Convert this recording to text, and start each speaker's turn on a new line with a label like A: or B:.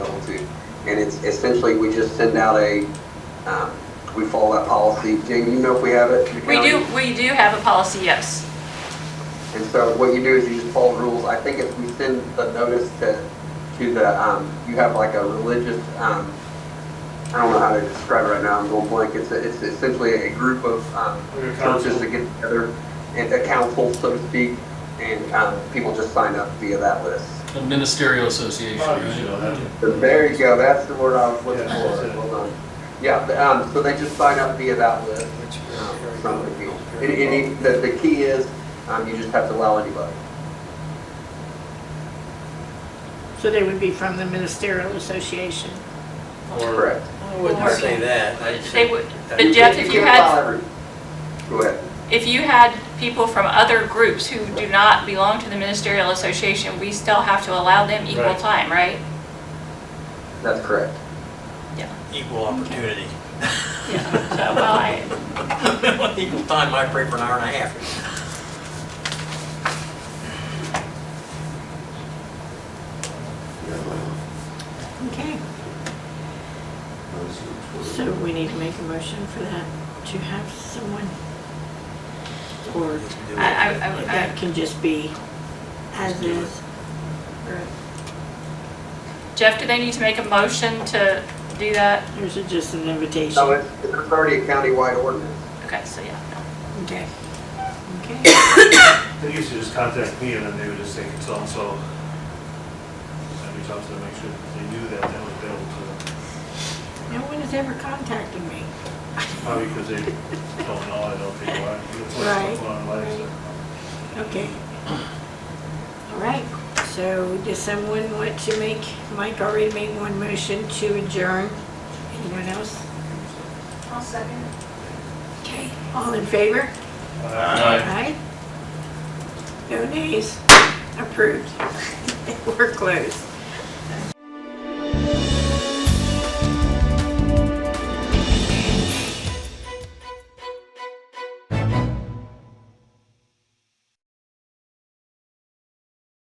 A: And it's essentially, we just send out a, um, we follow that policy. Jane, you know if we have it? in the
B: We
A: county?
B: do, we do have a policy, yes.
A: And so what you do is you just follow the rules. I think if we send the notice to, to the, um, you have like a religious, um, I don't know how to describe it right now, I'm going blank. It's, a- it's essentially a group of, um,
C: Like a council.
A: churches that get together and a council, so to speak, and, um, people just sign up via that list.
D: A ministerial association, right?
A: So There you go, that's the word I was looking
C: Yeah,
A: for.
C: that's it.
A: Well done. Yeah, but, um, so they just sign up via that list, um, from the people. And, and it- the, the key is, um, you just have to allow anybody.
E: So they would be from the ministerial association.
A: Correct.
F: I wouldn't say that. I'd
B: They
F: say-
B: would, but Jeff, if you had,
A: Go ahead.
B: if you had people from other groups who do not belong to the ministerial association, we still have to allow them equal
C: Right.
B: time, right?
A: That's correct.
F: Equal opportunity.
B: Yeah. So, well, I,
F: Equal time, I pray for an hour and a half.
E: Okay. So we need to make a motion for that, to have someone, or
B: I, I- I,
E: that can just be as is. Or
B: Jeff, do they need to make a motion to do that?
E: is it just an
A: No,
E: invitation?
A: it's, it's already a countywide ordinance.
B: Okay, so yeah.
E: Okay. Okay.
C: They used to just contact me and then they would just say, so and so. I'd reach out to them, make sure they knew that, they would be able to,
E: No one has ever contacted me.
C: probably because they don't know, I don't think why. That's what's
E: Right.
C: going on in life, so.
E: Okay. All right, so does someone want to make, Mike already made one motion to adjourn. Anyone else?
B: I'll second.
E: Okay, all in favor?
C: Uh,
E: Aye. No nays. Approved. We're closed.